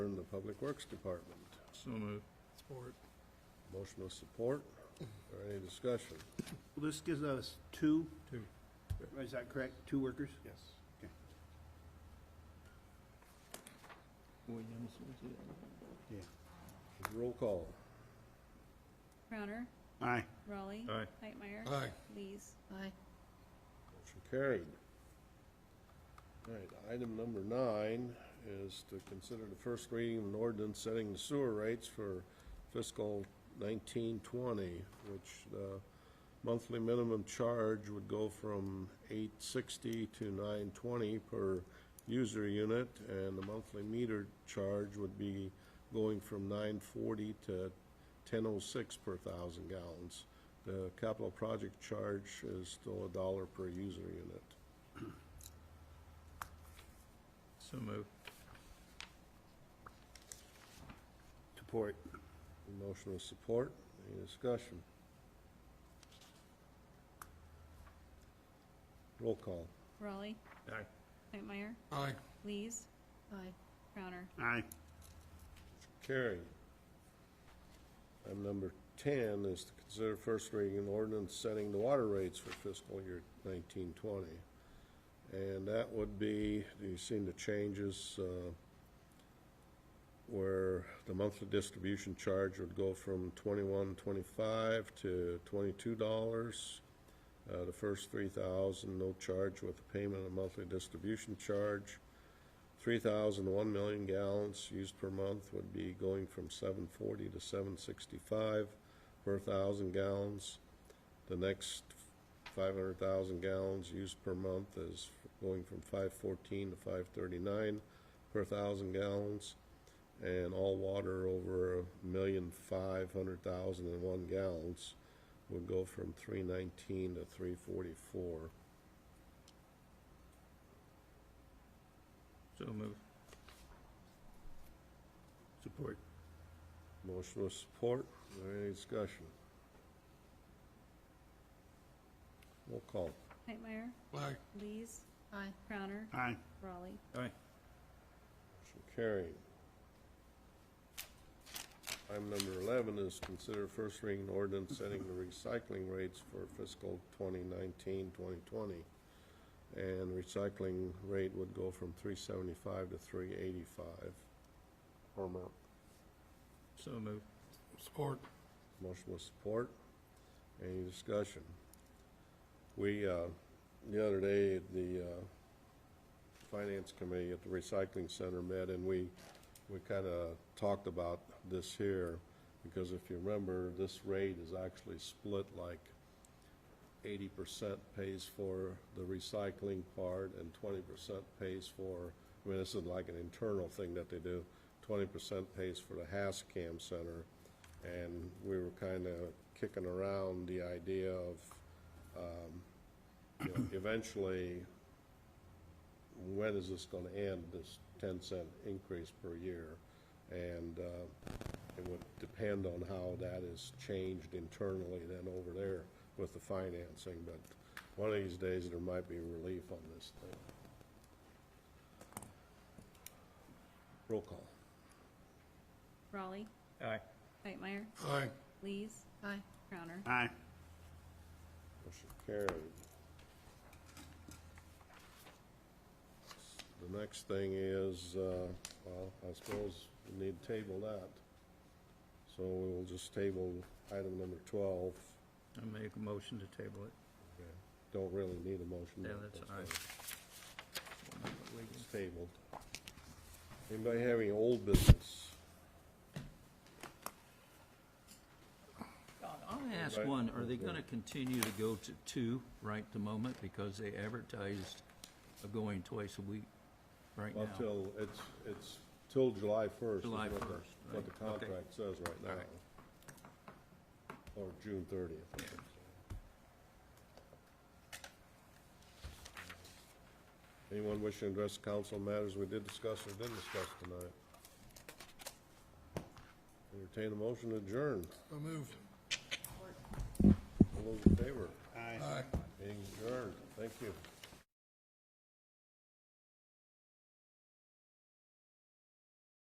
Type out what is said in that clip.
the Public Works Department. So moved. Support. Motion of support, or any discussion? Well, This gives us two, Two. is that correct? Two workers? Yes. Okay. Williams was the other one. Roll call. Crowner, Aye. Raleigh. Aye. Hightmeyer. Aye. Lees. Aye. Motion carried. All right, item number nine is to consider the first reading of an ordinance setting the sewer rates for fiscal nineteen twenty, which uh, the monthly minimum charge would go from eight sixty to nine twenty per user unit, and the monthly meter charge would be going from nine forty to ten oh six per thousand gallons. The capital project charge is still a dollar per user unit. So moved. Support. Motion with support, any discussion? Roll call. Raleigh. Aye. Hightmeyer. Aye. Lees. Aye. Crowner. Aye. Carried. Item number ten is to consider first reading an ordinance setting the water rates for fiscal year nineteen twenty. And that would be, you've seen the changes, uh, where the monthly distribution charge would go from twenty-one, twenty-five to twenty-two dollars. Uh, the first three thousand, no charge with the payment of monthly distribution charge. 3,000, 1 million gallons used per month would be going from 740 to 765 per thousand gallons. The next 500,000 gallons used per month is going from 514 to 539 per thousand gallons. And all water over a million five hundred thousand and one gallons would go from 319 to 344. So moved. Support. Motion with support. Is there any discussion? Roll call. Hightmeyer. Aye. Lees. Aye. Crowner. Aye. Raleigh. Aye. Motion carried. Item number 11 is consider first reading ordinance setting the recycling rates for fiscal 2019, 2020. And recycling rate would go from 375 to 385 per month. So moved. Support. Motion with support. Any discussion? We, uh, the other day, the uh, Finance Committee at the Recycling Center met, and we, we kind of talked about this here, because if you remember, this rate is actually split like eighty percent pays for the recycling part and twenty percent pays for, I mean, this is like an internal thing that they do. Twenty percent pays for the Hascam Center, and we were kind of kicking around the idea of, um, you know, eventually, when is this gonna end, this ten cent increase per year? And, uh, it would depend on how that is changed internally then over there with the financing, but one of these days, there might be relief on this thing. Roll call. Raleigh. Aye. Hightmeyer. Aye. Lees. Aye. Crowner. Aye. Motion carried. The next thing is, uh, well, I suppose we need to table that. So we will just table item number 12. I make a motion to table it. Don't really need a motion. Yeah, that's aye. It's tabled. Anybody have any old business? I'll ask Right. one, are they gonna continue to go to two right the moment because they advertised a going twice a week right now? Well, till, it's, it's till July 1st. is July what the- 1st, What the right, okay. contract says right All now. right. Or June 30th. Anyone wishing to address council matters we did discuss or didn't discuss tonight? Entertain a motion to adjourn. So moved. All those in favor? Aye. Aye. Being adjourned. Thank you.